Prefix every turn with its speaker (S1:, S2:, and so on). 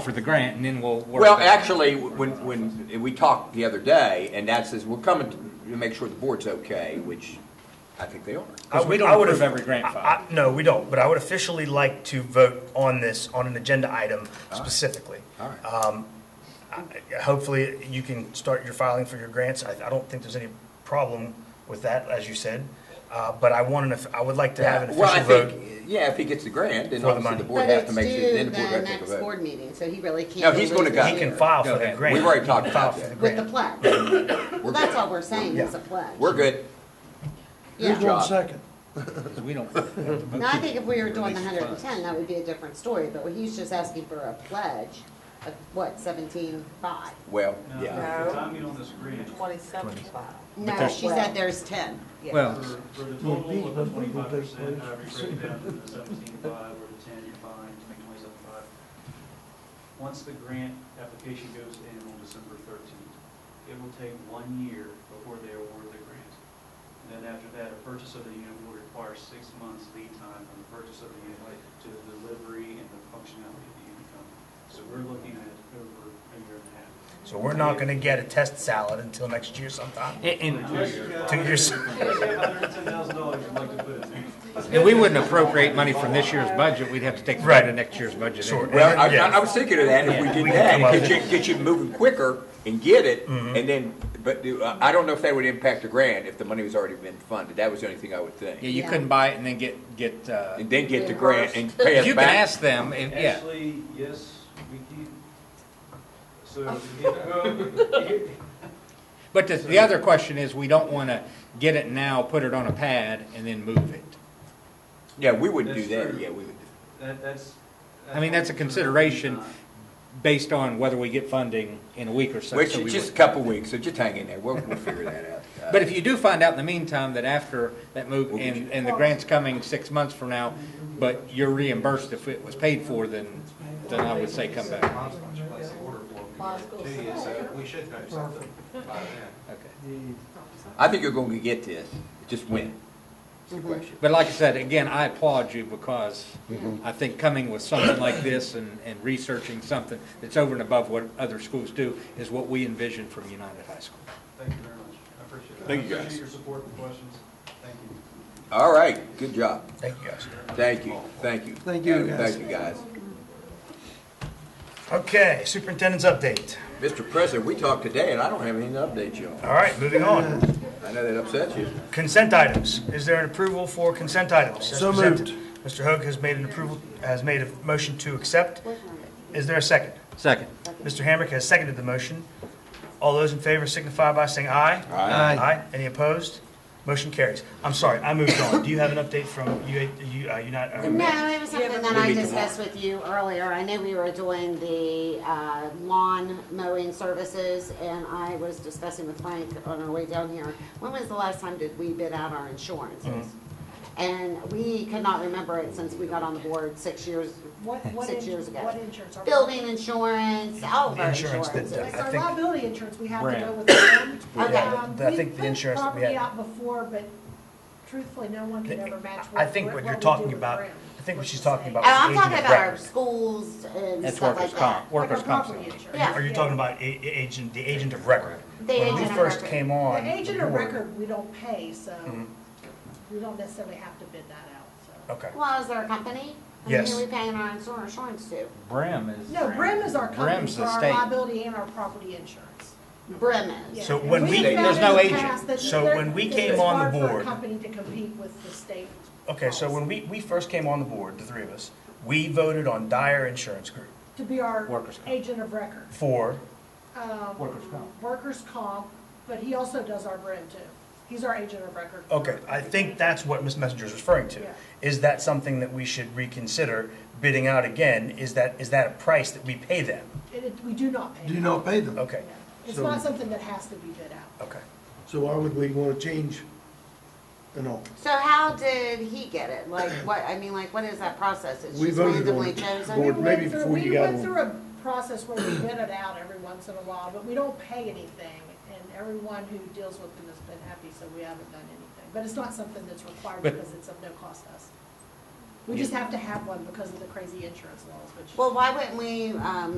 S1: for the grant and then we'll work.
S2: Well,
S1: back.
S2: actually, when, when we talked the other day, and that says, we're coming to make sure the board's okay, which I think they are.
S1: Because
S3: I
S1: we
S3: would-
S1: don't
S3: I would
S1: approve
S3: have-
S1: every grant
S3: I-
S1: file.
S3: I- No, we don't, but I would officially like to vote on this, on an agenda item
S1: Ah.
S3: specifically.
S2: All right.
S3: Uh, I- Hopefully, you can start your filing for your grants. I, I don't think there's any problem with that, as you said. Uh, But I want an, off- I would like to have an
S2: Well, I
S3: official vote.
S2: think, yeah, if he gets the grant, then
S3: For the
S2: obviously
S3: money.
S2: the board
S4: But
S2: has to
S4: it's
S2: make sure, then
S4: due
S2: the board
S4: the
S2: has to take a
S4: next
S2: vote.
S4: board meeting, so he really can't.
S2: No, he's
S4: release
S2: gonna go.
S4: it
S3: He can
S4: here.
S3: file for
S1: Go
S3: the
S1: ahead.
S3: grant.
S2: We've already
S3: He can
S2: talked
S3: file
S2: about
S3: for
S2: that.
S3: the
S4: With the
S3: grant.
S4: pledge.
S2: We're
S4: That's
S2: good.
S4: all we're saying is a pledge.
S2: We're good.
S5: Who's
S4: Yeah.
S2: job.
S5: going second?
S1: Because we don't. have to vote.
S4: Now, I think if we were doing the
S1: Release
S4: hundred and
S1: funds.
S4: ten, that would be a different story, but he's just asking for a pledge of what, seventeen five?
S2: Well, yeah.
S6: No.
S7: Timing on this agreement,
S6: Twenty-seven five.
S4: No,
S1: there's-
S4: she said there's ten.
S1: Well,
S7: for, for the total of the twenty-five percent, however you break it down to the seventeen-five or the ten, you're fine, to make twenty-seven-five. Once the grant application goes in on December thirteenth, it will take one year before they award the grant. And then after that, a purchase of the unit will require six months lead time from the purchase of the unit to the delivery and the functionality of the unit. coming. So we're looking at over a year and a half.
S3: So we're not going to get a test salad until next year sometime.
S1: And, and-
S7: Unless you got
S3: Two years.
S7: $110,000 you'd like to put in there.
S1: and we wouldn't appropriate money from this year's budget. We'd have to take it out of
S3: Right.
S1: next year's budget.
S3: Sure.
S1: anyway.
S2: Well, I,
S3: Yeah.
S2: I was thinking of that, if we did
S3: We can
S2: that,
S3: come up
S2: it
S3: with- Mm-hmm.
S2: get you, get you moving quicker and get it, and then, but do- uh, I don't know if that would impact the grant, if the money was already been funded, that was the only thing I would
S1: Yeah,
S2: think.
S1: you
S4: Yeah.
S1: couldn't buy it and then get, get, uh,
S2: And then get the grant and pay
S1: you
S2: us
S1: can
S2: back.
S1: ask them, and- yeah.
S7: Actually, yes, we can. So, if you get- well, here-
S1: But the, the other question is, we don't want to get it now, put it on a pad and then move it.
S2: Yeah, we wouldn't do
S7: That's
S2: that,
S7: true.
S2: yeah, we would.
S7: that, that's.
S1: I mean, that's a consideration based on whether we get funding in a week or so.
S2: Which,
S1: so we
S2: just a
S1: would-
S2: couple weeks, so just hang in there, we'll, we'll figure that out. Uh,
S1: But if you do find out in the meantime that after that move,
S2: We'll get
S1: and,
S2: you-
S1: and the grant's coming six months from now, but you're reimbursed if it was paid for, then, then I would say come back.
S8: place the order for me, too, so we should know something by then.
S1: Okay.
S2: I think you're gonna get this, just when, is the question.
S1: But like I said, again, I applaud you because I think coming with something like this and, and researching something that's over and above what other schools do is what we envision from United High School.
S7: Thank you very much, I appreciate it.
S2: Thank you,
S7: I
S2: guys.
S7: appreciate your support and questions, thank you.
S2: All right, good job,
S3: Thank you, guys.
S2: thank you, thank you.
S5: Thank you, guys.
S2: Thank you, guys.
S3: Okay, superintendent's update.
S2: Mr. President, we talked today, and I don't have anything to update you on.
S3: All right, moving on.
S2: I know that upsets you.
S3: Consent items. Is there an approval for consent items? as
S5: So
S3: presented?
S5: moved.
S3: Mr. Hoag has made an approval, has made a motion to accept. Is there a second?
S1: Second.
S3: Mr. Hamrick has seconded the motion. All those in favor signify by saying aye.
S2: Aye.
S3: Aye. Any opposed? Motion carries. I'm sorry, I moved on. Do you have an update from UA, U- uh, United? uh,
S4: No, it was something that I discussed with you earlier. I know we were doing the uh, lawn mowing services, and I was discussing with Frank on our way down here, when was the last time did we bid out our
S3: Mm-hmm.
S4: insurances? And we could not remember it since we got on the board six years,
S9: What, what
S4: six years
S9: ins-
S4: ago.
S9: what insurance? Are we-
S4: Building insurance, all of our
S3: Insurance that-
S4: insurances.
S9: It's our
S3: I think-
S9: liability insurance, we have to go
S1: Brand.
S9: with them.
S4: Okay.
S9: Um,
S3: I think the
S9: put
S3: insurance that we had-
S9: Property out before, but truthfully, no one can ever match what.
S3: I think what you're
S9: we do
S3: talking
S9: with
S3: about,
S9: Brand.
S3: I think what she's talking
S4: And
S3: about
S4: I'm
S3: is
S4: talking
S3: agent of
S4: about our
S3: record.
S4: schools and
S1: That's
S4: stuff
S1: workers'
S4: like that.
S1: comp,
S9: Like our
S1: workers' comp.
S9: property
S1: settlement.
S9: insurance.
S4: Yeah.
S3: Are you talking about a- a- agent, the agent of record?
S4: The
S3: When
S4: agent
S3: we
S4: of
S3: first
S4: record.
S3: came on.
S9: The agent
S3: the
S9: of
S3: board-
S9: record, we don't pay, so
S3: Mm-hmm.
S9: we don't necessarily have to bid that out, so.
S3: Okay.
S4: Well, is there a company? I mean,
S3: Yes.
S4: Who are we paying our insur- insurance to?
S1: Brim
S3: Oh.
S1: is.
S9: No, Brim is our company
S1: Brim's
S9: for
S1: the
S9: our
S1: state.
S9: liability and our property insurance.
S4: Brim
S9: Yeah,
S4: is.
S3: So
S9: and
S3: when we-
S9: have
S1: There's
S9: found
S1: no
S9: in the
S1: agent.
S9: past that
S3: So
S9: there-
S3: when we
S9: it's
S3: came on the
S9: hard for a
S3: board-
S9: Company to compete with the state.
S3: Okay, so when we, we first came on the board, the three of us, we voted on Dyer Insurance Group
S9: To be our
S1: Workers' comp.
S9: agent of record.
S3: for,
S9: um,
S1: Workers' comp.
S9: Workers' comp, but he also does our brand too. He's our agent of record.
S3: okay, I think that's what Ms. Messenger is referring to.
S9: Yeah.
S3: Is that something that we should reconsider bidding out again? Is that, is that a price that we pay them?
S9: It- it- We do not pay.
S5: Do you
S9: him.
S5: not pay them?
S3: Okay,
S9: No. It's
S5: So-
S9: not something that has to be bid out.
S3: okay.
S5: So why would we wanna change and all?
S4: So how did he get it? Like, what, I mean, like, what is that process? It's
S5: We
S4: just
S5: voted on
S4: randomly
S5: it.
S9: We
S4: chosen?
S5: Board-
S9: went
S5: maybe
S9: through-
S5: before you got on.
S9: We went through a process where we bid it out every once in a while, but we don't pay anything. And everyone who deals with them has been happy, so we haven't done anything. But it's not something that's required
S1: But-
S9: because it's of no cost to us. We just have to have one because of the crazy insurance laws, which.
S4: Well, why wouldn't we, um,